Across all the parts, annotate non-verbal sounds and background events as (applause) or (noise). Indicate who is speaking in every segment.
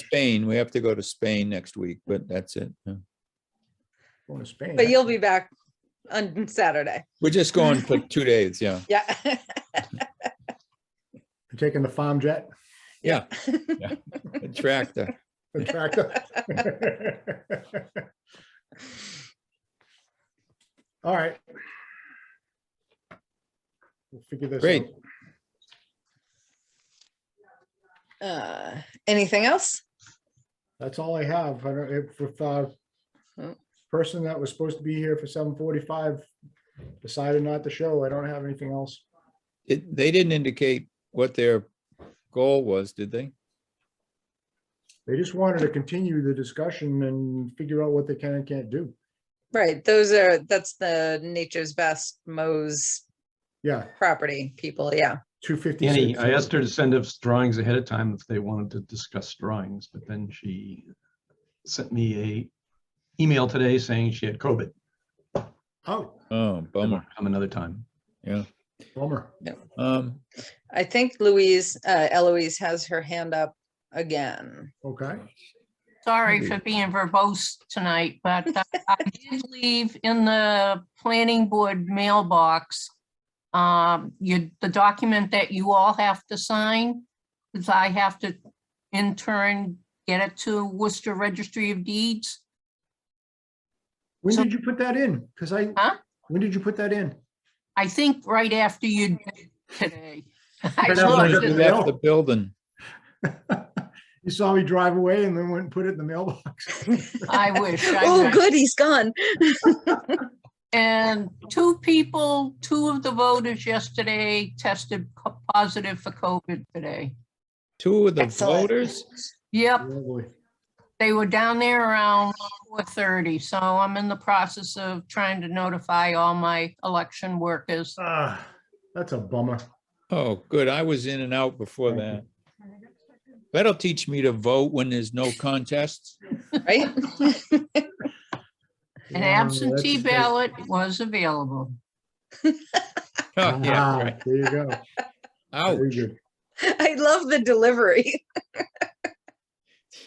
Speaker 1: Spain, we have to go to Spain next week, but that's it. yeah.
Speaker 2: Going to Spain.
Speaker 3: But you'll be back on Saturday.
Speaker 1: We're just going for two days, yeah.
Speaker 3: Yeah. (laughs)
Speaker 2: You're Taking the farm jet,
Speaker 1: Yeah. yeah. The Tractor.
Speaker 2: the
Speaker 3: (laughs)
Speaker 2: tractor. All right. We'll Figure this.
Speaker 1: Great.
Speaker 2: out.
Speaker 3: Uh, Anything else?
Speaker 2: That's all I have. I don't, if, if, uh,
Speaker 3: Oh.
Speaker 2: person that was supposed to be here for seven forty-five decided not to show, I don't have anything else.
Speaker 1: It, they didn't indicate what their goal was, did they?
Speaker 2: They just wanted to continue the discussion and figure out what they can and can't do.
Speaker 3: Right, those are, that's the Nature's Best Mo's
Speaker 2: Yeah,
Speaker 3: property people, yeah.
Speaker 2: two
Speaker 4: Annie,
Speaker 2: fifty-six.
Speaker 4: I asked her to send us drawings ahead of time if they wanted to discuss drawings, but then she sent me a email today saying she had COVID.
Speaker 2: Oh,
Speaker 1: Oh, bummer,
Speaker 4: Come another time.
Speaker 1: yeah.
Speaker 2: bummer.
Speaker 1: Um,
Speaker 3: I think Louise, uh, Eloise has her hand up again.
Speaker 2: Okay.
Speaker 5: Sorry
Speaker 1: Indeed.
Speaker 5: for being verbose tonight, but uh,
Speaker 3: (laughs)
Speaker 5: I did leave in the planning board mailbox. Um, you, the document that you all have to sign, because I have to in turn get it to Worcester Registry of Deeds.
Speaker 2: When
Speaker 5: So-
Speaker 2: did you put that in? Because I,
Speaker 5: Huh?
Speaker 2: when did you put that in? (laughs)
Speaker 5: I think right after you did today. I
Speaker 2: Right after I did
Speaker 5: looked
Speaker 1: we
Speaker 5: at-
Speaker 2: that.
Speaker 1: left the building.
Speaker 2: You saw me drive away and then went and put it in the
Speaker 5: (laughs)
Speaker 2: mailbox.
Speaker 5: I wish. I
Speaker 3: Oh,
Speaker 5: wish.
Speaker 3: good, he's gone.
Speaker 5: And two people, two of the voters yesterday tested co- positive for COVID today.
Speaker 1: Two of the
Speaker 3: Excellent.
Speaker 1: voters?
Speaker 5: Yep.
Speaker 2: Lovely.
Speaker 5: They were down there around four thirty, so I'm in the process of trying to notify all my election workers.
Speaker 2: Ah, that's a bummer.
Speaker 1: Oh, good, I was in and out before that. That'll teach me to vote when there's no contests. (laughs)
Speaker 3: (laughs) Right?
Speaker 5: An
Speaker 2: Yeah,
Speaker 5: absentee
Speaker 2: that's- that's-
Speaker 5: ballot was available.
Speaker 1: Oh, yeah,
Speaker 2: Ah,
Speaker 1: right.
Speaker 2: There
Speaker 1: (laughs)
Speaker 2: you go. Very
Speaker 1: Ouch,
Speaker 2: good.
Speaker 3: I love the delivery.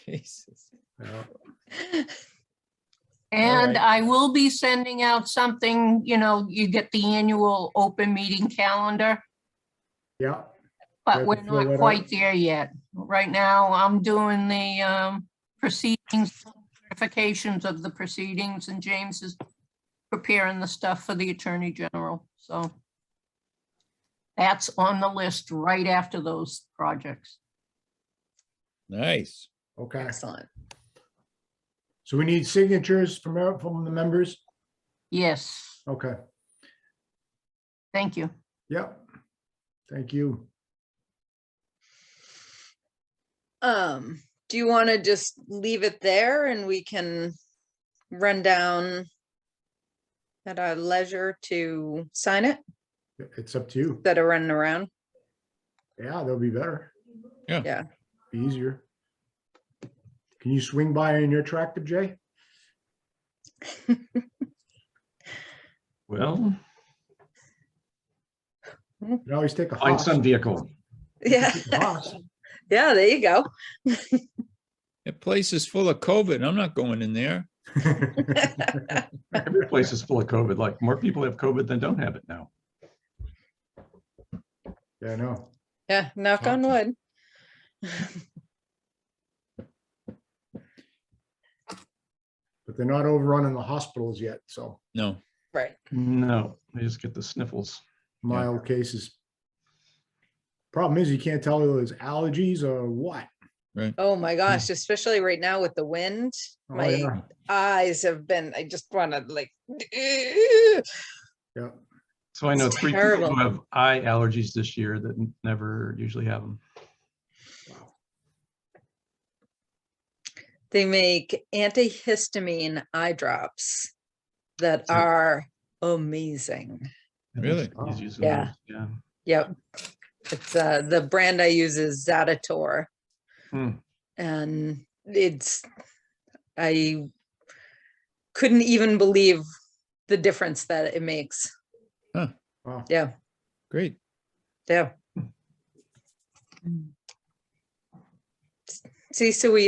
Speaker 1: Jesus.
Speaker 2: Yeah.
Speaker 5: And
Speaker 1: right.
Speaker 5: I will be sending out something, you know, you get the annual open meeting calendar,
Speaker 2: Yeah,
Speaker 5: but
Speaker 2: Right,
Speaker 5: we're
Speaker 2: to fill that
Speaker 5: not
Speaker 2: out.
Speaker 5: quite there yet. Right now, I'm doing the um, proceedings, certifications of the proceedings, and James is preparing the stuff for the Attorney General, so. That's on the list right after those projects.
Speaker 1: Nice.
Speaker 2: okay.
Speaker 3: Excellent.
Speaker 2: So we need signatures from, our- from the members?
Speaker 5: Yes,
Speaker 2: Okay,
Speaker 5: thank you.
Speaker 2: yep. Thank you.
Speaker 3: Um, do you want to just leave it there and we can run down at our leisure to sign it
Speaker 2: It's up to you.
Speaker 3: that are running around?
Speaker 2: Yeah, that'll be better.
Speaker 1: Yeah.
Speaker 3: Yeah.
Speaker 2: Be easier. Can you swing by in your tractor, Jay?
Speaker 3: Mm.
Speaker 4: Well,
Speaker 2: You can always take a
Speaker 4: find
Speaker 2: Haas.
Speaker 3: (laughs)
Speaker 4: some vehicle.
Speaker 3: Yeah,
Speaker 2: Haas.
Speaker 3: yeah, there you go.
Speaker 1: That place is full of COVID, I'm not going in there.
Speaker 2: (laughs)
Speaker 4: Every place is full of COVID, like more people have COVID than don't have it now.
Speaker 2: Yeah, I know.
Speaker 3: Yeah, knock on wood.
Speaker 2: But they're not overrunning the hospitals yet, so
Speaker 1: No,
Speaker 3: Right.
Speaker 4: No, they just get the sniffles.
Speaker 2: mild cases. Problem is, you can't tell whether it's allergies or what.
Speaker 3: Oh my gosh, especially right now with the wind,
Speaker 2: Hmm. Oh,
Speaker 3: my
Speaker 2: yeah.
Speaker 3: eyes have been, I just want to like, (laughs)
Speaker 2: Yeah.
Speaker 4: So I know
Speaker 3: It's
Speaker 4: three people
Speaker 3: terrible.
Speaker 4: who have eye allergies this year that n- never usually have them.
Speaker 3: they make antihistamine eye drops that
Speaker 4: Hmm.
Speaker 3: are amazing.
Speaker 4: I think
Speaker 1: Really?
Speaker 4: somebody's using
Speaker 3: Yeah.
Speaker 4: those, Yeah.
Speaker 3: Yep. It's uh, the brand I use is Zaditor.
Speaker 4: Hmm.
Speaker 3: And it's, I couldn't even believe the difference that it makes.
Speaker 2: Wow.
Speaker 3: Yeah,
Speaker 1: great.
Speaker 3: yeah. See, so we